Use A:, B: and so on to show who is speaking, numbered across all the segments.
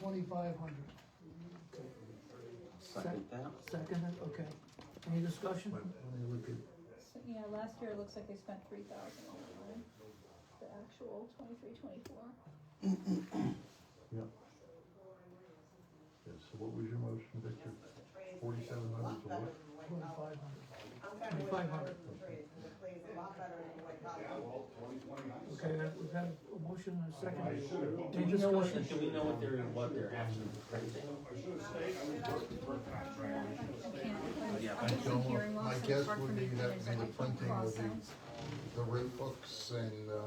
A: twenty-five hundred.
B: Second that.
A: Second, it? okay. Any discussion?
C: So, yeah, last year it looks like they spent three thousand on the actual twenty-three, twenty-four.
D: Yes, so what was your motion, Victor? Forty-seven hundred to what?
A: Twenty-five hundred.
E: I'm kind of
A: 2,500.
E: please, a lot better than what I
A: Okay, that- we've had a motion and a second.
B: Do
A: Any
B: we know what,
A: discussion?
B: do we know what they're, what they're actually printing? Yeah,
C: I
B: but
C: can't, I'm hearing loss,
F: My
C: so it's
F: guess
C: hard for
F: would
C: me
F: be
C: to
F: that
C: figure
F: maybe
C: out what
F: printing will
C: costs
F: be
C: out.
F: the rate books and, uh,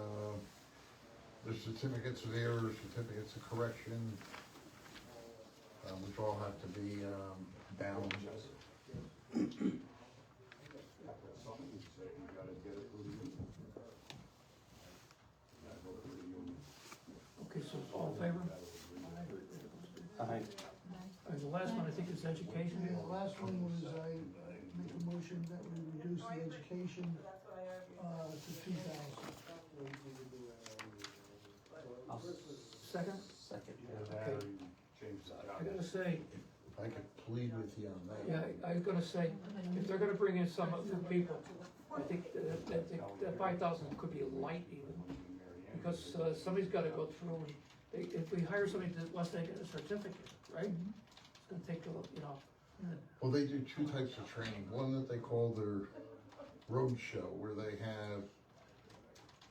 F: the certificates of error, certificates of correction, uh, which all have to be, um, bound.
A: Okay, so all in favor?
B: Aye.
A: Uh, The last one, I think, is education.
G: Yeah, the last one was I make a motion that we reduce the education, uh, to two thousand.
B: I'll s-
A: Second,
B: second that.
A: okay. I gotta say,
F: I could plead with you on that.
A: yeah, I- I was gonna say, if they're gonna bring in some of the people, I think that, that, that- that five thousand could be light even. Because, uh, somebody's gotta go through and, they- if we hire somebody that wants to get a certificate, right? It's
G: Mm-hmm.
A: gonna take a, little- you know,
F: Well, they do two types of training. One that they call their road show, where they have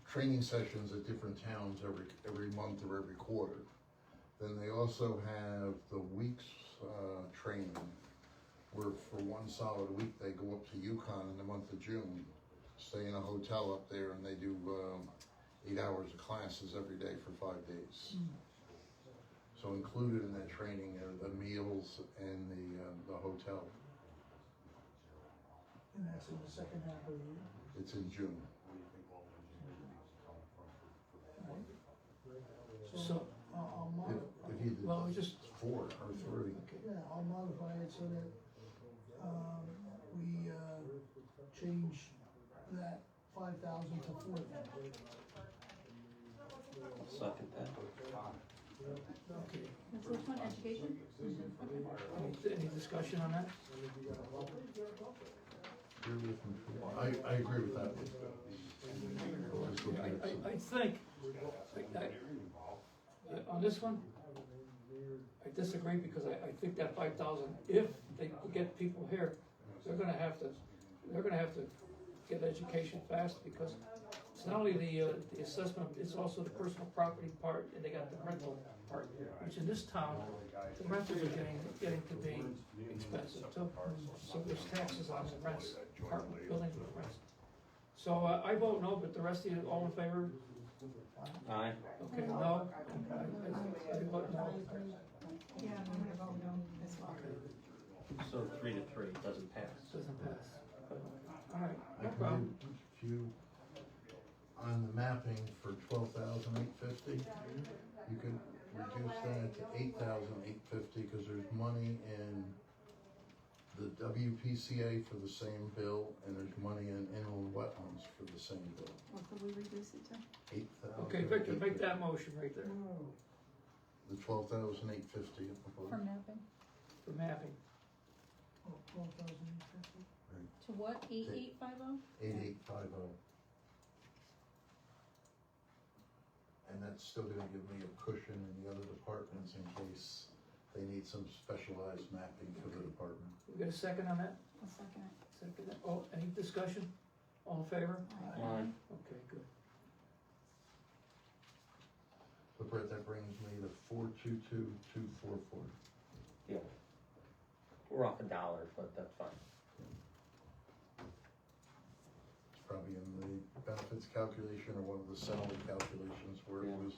F: training sessions at different towns every every month or every quarter. Then they also have the weeks uh, training, where for one solid week they go up to Yukon in the month of June, stay in a hotel up there, and they do um, eight hours of classes every day for five days. So included in that training are the meals and the, uh, the hotel.
G: And that's in the second half of the year.
F: It's in June.
A: so, uh,
G: I'll, I'll
F: If,
G: mod,
F: if he did
A: well, it was just,
F: four or three.
G: yeah, I'll modify it so that, um, we, uh, change that five thousand to four thousand.
B: Second that.
A: okay.
C: That's which one, education?
A: Any, any discussion on that?
F: I, I agree with that. Just looking at
A: I,
F: some-
A: I, I think, I, I, I- uh, on this one, I disagree because I, I think that five thousand, if they get people here, they're gonna have to, they're gonna have to get education fast because it's not only the, uh, the assessment, it's also the personal property part and they got the rental part, which in this town, the rentals are getting, getting to be expensive too. So there's taxes on the rents, apartment building rents. So uh, I vote no, but the rest of you, all in favor?
B: Aye.
A: Okay, no? I- I- I vote no.
E: Yeah, I'm gonna vote no as well.
B: So three to three, doesn't pass.
A: Doesn't pass. All right,
F: I
A: no
F: can
A: problem.
F: do a few on the mapping for twelve thousand eight fifty. You could reduce that to eight thousand eight fifty, cause there's money in the WPCA for the same bill, and there's money in inland wetlands for the same bill,
C: What could we reduce it to?
F: eight thousand.
A: Okay, Victor, make that motion right there
F: The twelve thousand eight fifty.
C: For mapping,
A: for mapping.
G: Oh, twelve thousand and fifty?
C: to what, eight eight five oh?
F: Eight eight five oh. And that's still gonna give me a cushion in the other departments in case they need some specialized mapping for the department.
A: We got a second on that?
C: I'll second it.
A: Second, oh, any discussion? All in favor?
B: Aye.
A: Okay, good.
F: So Brett, that brings me to four two two two four four.
B: We're off a dollar, but that's fine.
F: It's probably in the benefits calculation or one of the salary calculations where it
B: Yeah.
F: was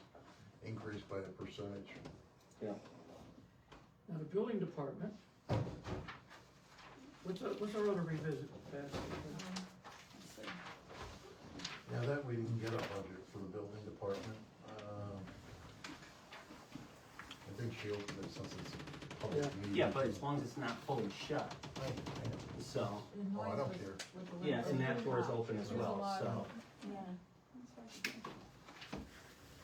F: increased by a percentage.
A: Now, the building department. What's, our- what's our other revisit? That's-
C: Let's see.
F: Now that way you can get a budget for the building department. Um, I think she opened it since it's a public
A: Yeah.
F: meeting.
B: Yeah, but as long as it's not fully shut,
F: I- I-
B: so,
F: Oh, I don't care.
B: yeah, and that door's open as
C: There's a
B: well,
C: lot
B: so.
C: of